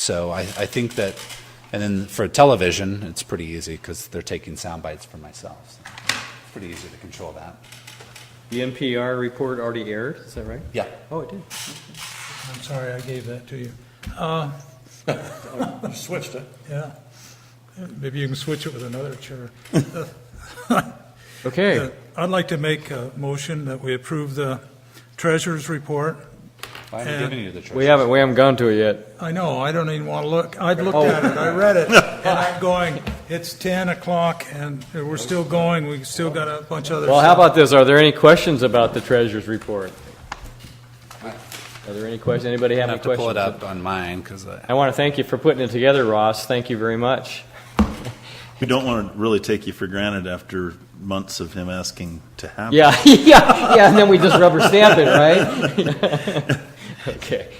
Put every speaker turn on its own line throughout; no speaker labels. So I, I think that, and then for television, it's pretty easy because they're taking sound bites for myself. So it's pretty easy to control that.
The NPR report already aired, is that right?
Yeah.
Oh, it did.
I'm sorry I gave that to you.
Uh, Switched it.
Yeah. Maybe you can switch it with another chair.
Okay.
Uh, I'd like to make a motion that we approve the treasurer's report.
I haven't
And-
given you the choice.
We haven't, we haven't gone to it yet.
I know, I don't even want to look. I'd looked at it,
Oh.
I read it, and I'm going, it's 10 o'clock, and we're still going, we still got a bunch of other
Well, how
stuff.
about this? Are there any questions about the treasurer's report? Are there any questions? Anybody have
I
any
have to
questions?
pull it up on mine uh, because I.
I want to thank you for putting it together, Ross. Thank you very much.
We don't want to really take you for granted after months of him asking to have. it.
Yeah, yeah, yeah, and then we just rubber stamp it, right? Okay.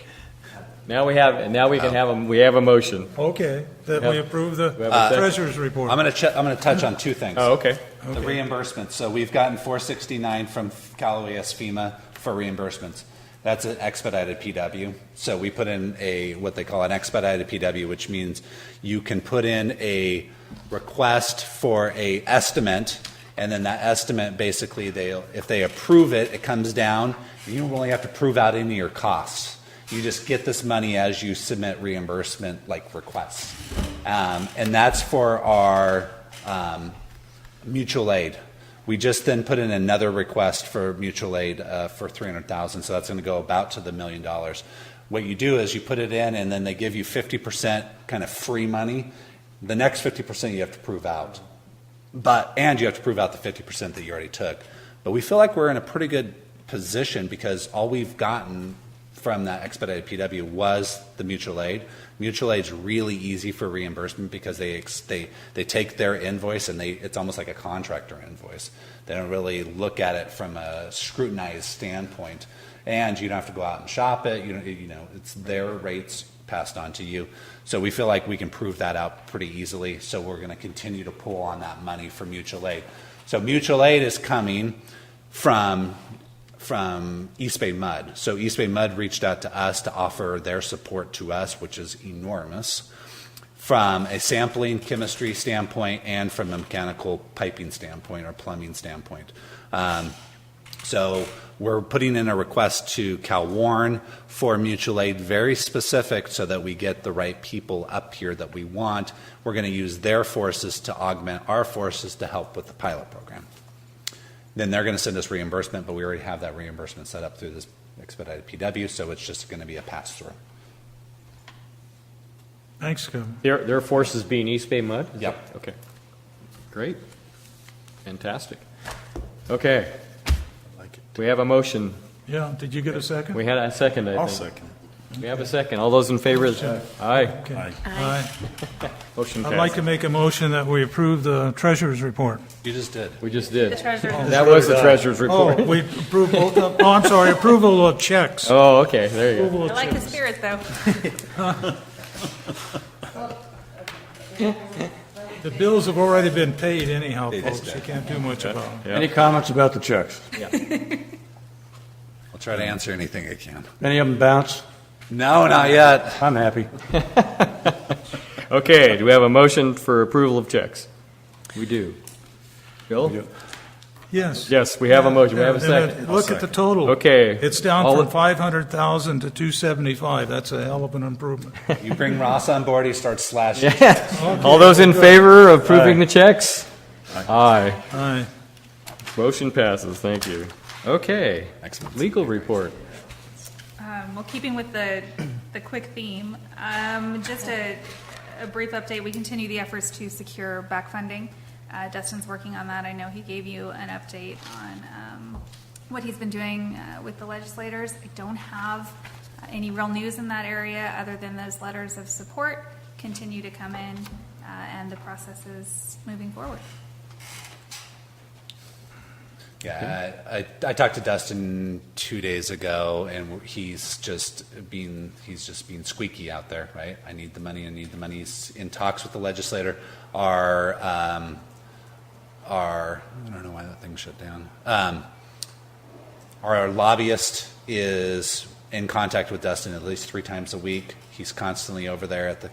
Now we have, now we can have, a we have a motion.
Okay, that we approve the
We have a second.
treasurer's report.
I'm going to ch- I'm going to touch on two things.
Oh, okay.
The reimbursement. So we've gotten 469 from Callaway-S FEMA for reimbursements. That's an expedited PW. So we put in a, what they call an expedited PW, which means you can put in a request for a estimate, and then that estimate, basically, they, if they approve it, it comes down. You don't really have to prove out any of your costs. You just get this money as you submit reimbursement, like requests. Um, And that's for our um, mutual aid. We just then put in another request for mutual aid uh, for 300,000, so that's going to go about to the million dollars. What you do is you put it in, and then they give you 50% kind of free money. The next 50% you have to prove out, but and you have to prove out the 50% that you already took. But we feel like we're in a pretty good position because all we've gotten from that expedited PW was the mutual aid. Mutual aid's really easy for reimbursement because they ex- they they take their invoice and they it's almost like a contractor invoice. They don't really look at it from a scrutinized standpoint, and you don't have to go out and shop it. You know, you know it's their rates passed on to you. So we feel like we can prove that out pretty easily. So we're going to continue to pull on that money for mutual aid. So mutual aid is coming from from East Bay Mud. So East Bay Mud reached out to us to offer their support to us, which is enormous from a sampling chemistry standpoint and from a mechanical piping standpoint or plumbing standpoint. Um, so we're putting in a request to Cal Warren for mutual aid, very specific, so that we get the right people up here that we want. We're going to use their forces to augment our forces to help with the pilot program. Then they're going to send us reimbursement, but we already have that reimbursement set up through this expedited PW, so it's just going to be a pass through.
Thanks, Kevin.
Their, their forces being East Bay Mud? Is
Yep.
that- Okay. Great. Fantastic. Okay. We have a motion.
Yeah, did you get a second?
We had a second, I
I'll
think.
second. it.
We have a second. All those in favor? Aye.
Okay.
Aye.
Aye.
Motion
I'd like
passed.
to make a motion that we approve the treasurer's report.
You just did.
We just did.
The treasurer.
That was the treasurer's
Oh,
report.
we approve both of, oh, I'm sorry, approval of checks.
Oh, okay, there you go.
Approval of
I like the
checks.
spirit, though.
The bills have already been paid anyhow,
They just
folks, you can't do much about them.
Yeah.
Any comments about the checks?
I'll try to answer anything I can.
Any of them bounce?
No, not yet.
I'm happy.
Okay, do we have a motion for approval of checks? We do. Bill?
Yes.
Yes, we have a motion. We have a
And it-
second.
Look at the total.
Okay.
It's down
All
from
in-
500,000 to 275. That's a hell of an improvement.
You bring Ross on board, he starts slashing.
All those in favor of approving the checks? Aye.
Aye.
Motion passes, thank you. Okay, legal report.
Um, Well, keeping with the, the quick theme, um, just a, a brief update, we continue the efforts to secure back funding. Uh, Dustin's working on that, I know he gave you an update on um, what he's been doing uh, with the legislators. I don't have uh, any real news in that area, other than those letters of support continue to come in, uh, and the process is moving forward.
Yeah, I, I, I talked to Dustin two days ago, and he's just being he's just being squeaky out there, right? I need the money. I need the money. He's in talks with the legislator. Our um, our I don't know why that thing shut down. Um, our lobbyist is in contact with Dustin at least three times a week. He's constantly over there at the